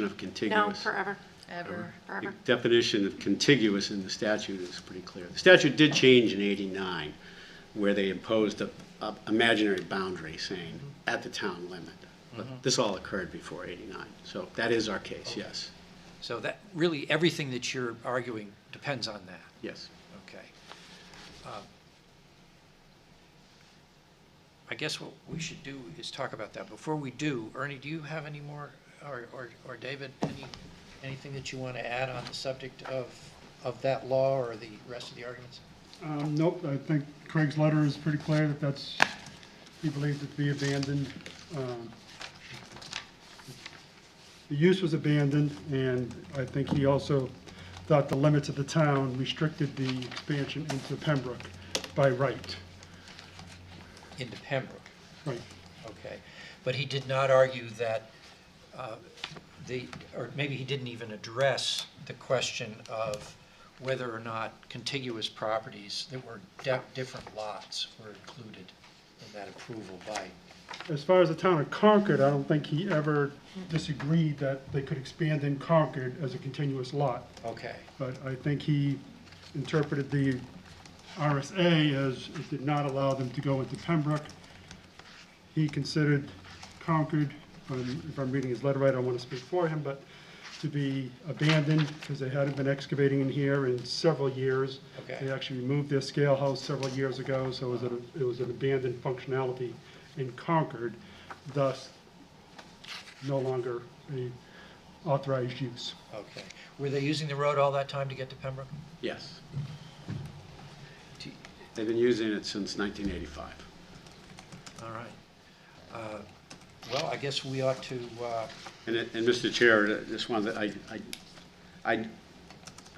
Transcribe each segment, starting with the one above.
Definition of No, contiguous. forever, ever. The forever. definition of contiguous in the statute is pretty clear. The statute did change in 89, where they imposed a, a imaginary boundary saying, at the town limit. But this all occurred before 89, so that is our case, yes, So that, really, everything that you're arguing depends on that, yes. okay? Um, I guess what we should do is talk about that. Before we do, Ernie, do you have any more, or, or, or David, any, anything that you want to add on the subject of, of that law or the rest of the arguments? Um, nope, I think Craig's letter is pretty clear that that's, he believes it to be abandoned. Um, The use was abandoned, and I think he also thought the limits of the town restricted the expansion into Pembroke by right, Into Pembroke, right. okay? But he did not argue that, uh, the, or maybe he didn't even address the question of whether or not contiguous properties that were de- different lots were included in that approval by, As far as the town of Concord, I don't think he ever disagreed that they could expand in Concord as a continuous lot. okay, but I think he interpreted the RSA as it did not allow them to go into Pembroke. He considered Concord, um, if I'm reading his letter right, I want to speak for him, but to be abandoned because they hadn't been excavating in here in several years. Okay. They actually removed their scale house several years ago, so it was, an- it was an abandoned functionality in Concord, thus no longer a authorized use. okay. Were they using the road all that time to get to Pembroke? Yes. They've been using it since 1985. All right. Uh, Well, I guess we ought to, uh, And, it- and Mr. Chair, I just wanted, to- I, I, I,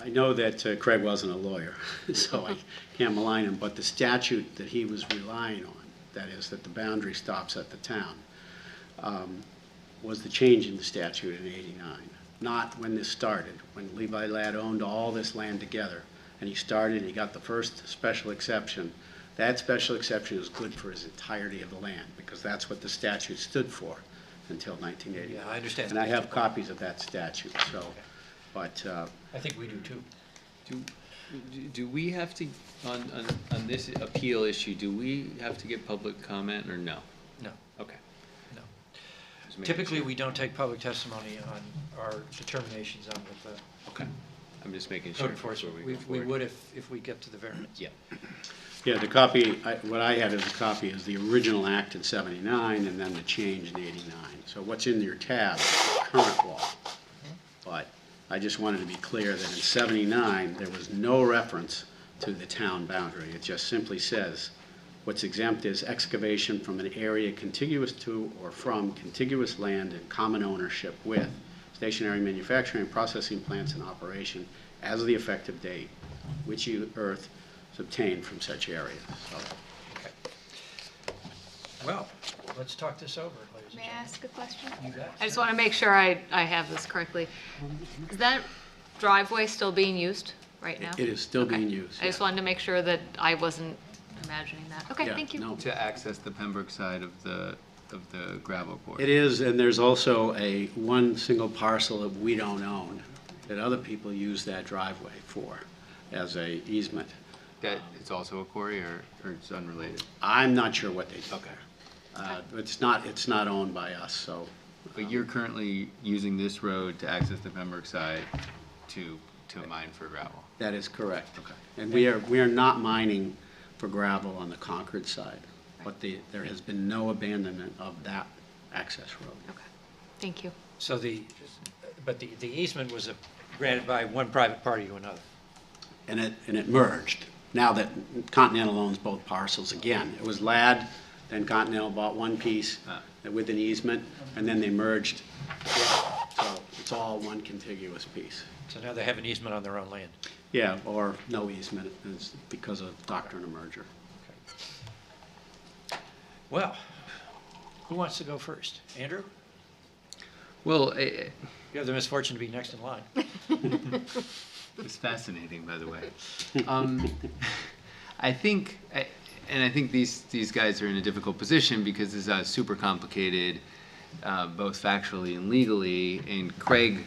I know that uh, Craig wasn't a lawyer, so I can't malign him, but the statute that he was relying on, that is, that the boundary stops at the town, um, was the change in the statute in eighty-nine, not when this started, when Levi Ladd owned all this land together, and he started, he got the first special exception. That special exception is good for his entirety of the land, because that's what the statute stood for until nineteen eighty-nine. Yeah, I understand. And I have copies of that statute, so, but, uh, I think we do too. Do, do- do we have to, on, on, on this appeal issue, do we have to get public comment or no? No, Okay. no. Just making Typically, sure. we don't take public testimony on our determinations on what the Okay, I'm just making sure. code enforcement, before we, go we forward. would if, if we get to the variance. Yeah, yeah, the copy, I- what I had as a copy is the original act in 79 and then the change in 89. So what's in your tab is the current law. But I just wanted to be clear that in 79, there was no reference to the town boundary. It just simply says, what's exempt is excavation from an area contiguous to or from contiguous land in common ownership with stationary manufacturing, processing plants in operation as of the effective date, which you- earth is obtained from such areas. So Okay. Well, let's talk this over, ladies and May I gentlemen. ask a question? You bet. I just want to make sure I, I have this correctly. Is that driveway still being used right now? It is still Okay. being used. I just yeah. wanted to make sure that I wasn't imagining that. Okay, Yeah, thank you. no. to access the Pembroke side of the, of the gravel It quarry. is, and there's also a, one single parcel that we don't own, that other people use that driveway for, as a easement. That, it's also a quarry or, or it's unrelated? I'm not sure what they do there. Uh, It's not, it's not owned by us, so, But you're currently using this road to access the Pembroke side to, to mine for gravel? that is correct. Okay. And we are, we are not mining for gravel on the Concord side, but the, there has been no abandonment of that access road. Okay, thank you. So the, but the, the easement was uh, granted by one private party to another. and it, and it merged. Now that Continental owns both parcels again. It was Ladd, then Continental bought one piece with an easement, and then they merged. So it's all one contiguous piece. So now they have an easement on their own land. Yeah, or no easement, it's because of doctrine of merger. Well, who wants to go first? Andrew? Well, i- You have the misfortune to be next in line. It's fascinating, by the way. Um, I think, I- and I think these, these guys are in a difficult position because this is a super complicated uh, both factually and legally, and Craig